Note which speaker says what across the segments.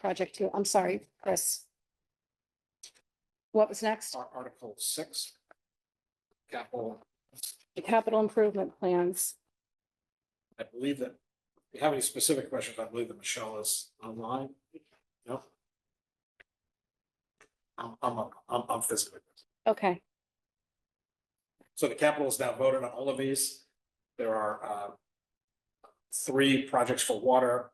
Speaker 1: project two. I'm sorry, Chris. What was next?
Speaker 2: Ar- Article six. Capital,
Speaker 1: The capital improvement plans.
Speaker 2: I believe that, if you have any specific questions, I believe that Michelle is online. No? I'm, I'm, I'm, I'm physically.
Speaker 1: Okay,
Speaker 2: So the capital is now voted on all of these. There are uh. Three projects for water,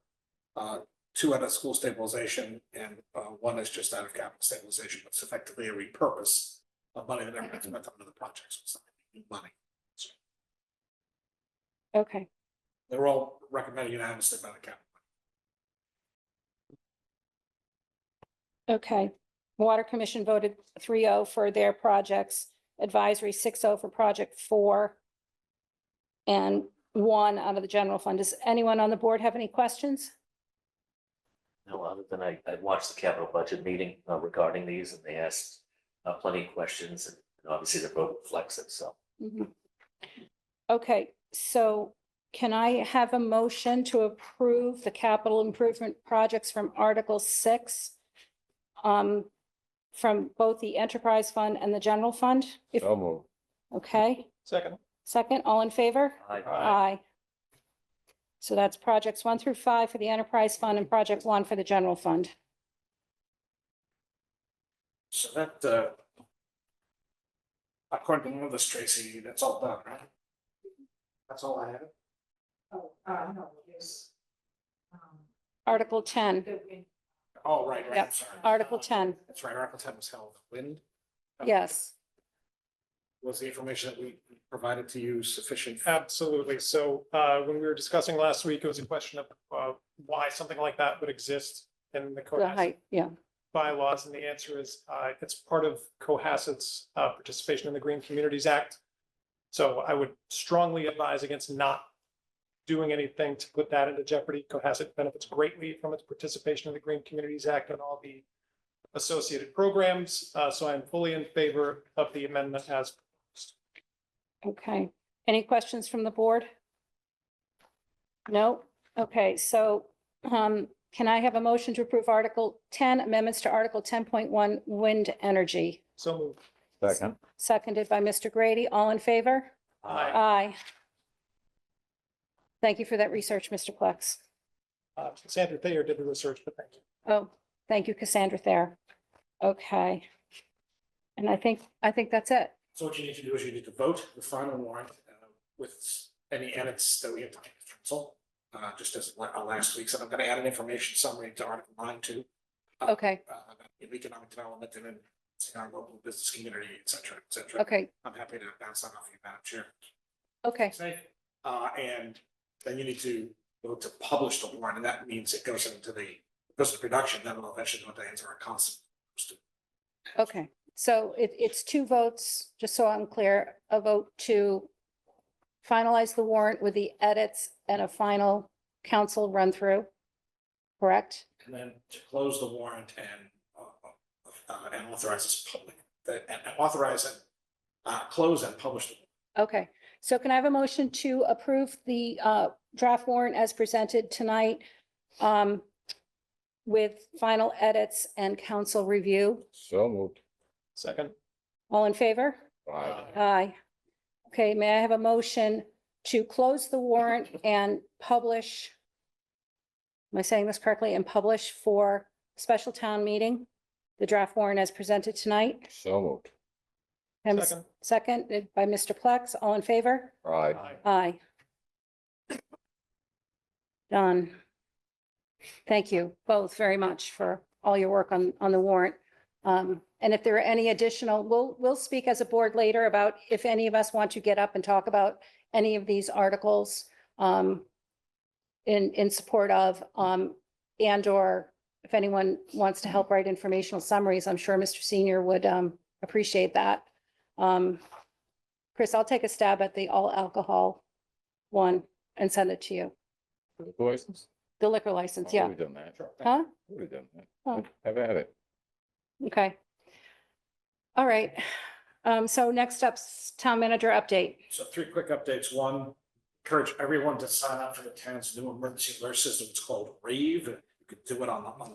Speaker 2: uh, two out of school stabilization and uh, one is just out of capital stabilization. It's effectively a repurpose of money that never been spent on other projects. It's not new Money.
Speaker 1: okay.
Speaker 2: They're all recommended unanimously by the capital.
Speaker 1: Okay. Water Commission voted 3-0 for their projects, advisory 6-0 for project four. And one out of the general fund. Does anyone on the board have any questions?
Speaker 3: No, other than I, I watched the capital budget meeting uh, regarding these and they asked uh, plenty of questions and obviously the vote reflects it, so.
Speaker 1: Mhm. Okay, so can I have a motion to approve the capital improvement projects from Article six? Um, from both the enterprise fund and the general fund? If,
Speaker 4: So moved.
Speaker 1: okay,
Speaker 5: Second.
Speaker 1: second, all in favor? Aye. So that's projects one through five for the enterprise fund and project one for the general fund.
Speaker 2: So that uh. According to one of this, Tracy, that's all done, right? That's all I have.
Speaker 6: Oh, uh, no, yes. Um,
Speaker 1: Article ten,
Speaker 6: the wind-
Speaker 2: Oh, right, right,
Speaker 1: Yep.
Speaker 2: I'm sorry.
Speaker 1: Article ten,
Speaker 2: That's right, Article ten was held. Wind
Speaker 1: yes.
Speaker 2: was the information that we provided to you sufficient?
Speaker 5: Uh, Absolutely. So uh, when we were discussing last week, it was a question of uh, why something like that would exist in the
Speaker 1: The
Speaker 5: Cohasset
Speaker 1: height, yeah,
Speaker 5: bylaws, and the answer is uh, it's part of Cohasset's uh, participation in the Green Communities Act. So I would strongly advise against not doing anything to put that into jeopardy. Cohasset benefits greatly from its participation in the Green Communities Act and all the associated programs. Uh, So I'm fully in favor of the amendment as
Speaker 1: okay. Any questions from the board? No? Okay, so um, can I have a motion to approve Article ten, amendments to Article ten point one, wind energy?
Speaker 5: so moved.
Speaker 4: Second.
Speaker 1: Seconded by Mr. Grady, all in favor?
Speaker 5: Aye.
Speaker 1: Aye. Thank you for that research, Mr. Plex.
Speaker 5: Uh, Sandra Thayer did the research, but thank you.
Speaker 1: Oh, thank you, Cassandra Thayer. Okay. And I think, I think that's it.
Speaker 2: So what you need to do is you need to vote the final warrant uh, with any edits that we have to take to council. Uh, just as la- uh, last week, so I'm gonna add an information summary to Article nine too. uh,
Speaker 1: Okay,
Speaker 2: Uh, about economic development and then our local business community, et cetera, et cetera.
Speaker 1: okay,
Speaker 2: I'm happy to bounce that off you, Madam Chair.
Speaker 1: okay,
Speaker 2: Safe. Uh, and then you need to vote to publish the warrant, and that means it goes into the, goes to production, then we'll eventually go into hands of our council.
Speaker 1: okay. So it, it's two votes, just so I'm clear, a vote to finalize the warrant with the edits and a final council run through. Correct?
Speaker 2: And then to close the warrant and, uh, uh, and authorize this public, that- and and authorize it, uh, close and publish. the-
Speaker 1: Okay, so can I have a motion to approve the uh, draft warrant as presented tonight um, with final edits and council review?
Speaker 4: So moved.
Speaker 5: Second.
Speaker 1: All in favor?
Speaker 4: Aye.
Speaker 1: Aye. Okay, may I have a motion to close the warrant and publish? Am I saying this correctly? And publish for special town meeting, the draft warrant as presented tonight?
Speaker 4: So moved.
Speaker 1: And
Speaker 5: Second.
Speaker 1: Seconded by Mr. Plex. All in favor?
Speaker 4: Aye.
Speaker 5: Aye.
Speaker 1: Aye. Done. Thank you both very much for all your work on, on the warrant. Um, and if there are any additional, we'll, we'll speak as a board later about if any of us want to get up and talk about any of these articles, um, in, in support of, um, and or if anyone wants to help write informational summaries, I'm sure Mr. Senior would, um, appreciate that. Um, Chris, I'll take a stab at the all alcohol one and send it to you.
Speaker 4: Liquor License?
Speaker 1: The liquor license, uh, yeah.
Speaker 4: We've done that.
Speaker 1: Huh?
Speaker 4: We've done that.
Speaker 1: Oh.
Speaker 4: Have at it.
Speaker 1: Okay. All right. Um, so next up's town manager update.
Speaker 2: So three quick updates. One, encourage everyone to sign up for the town's new emergency alert system. It's called Rave. You can do it on the, on the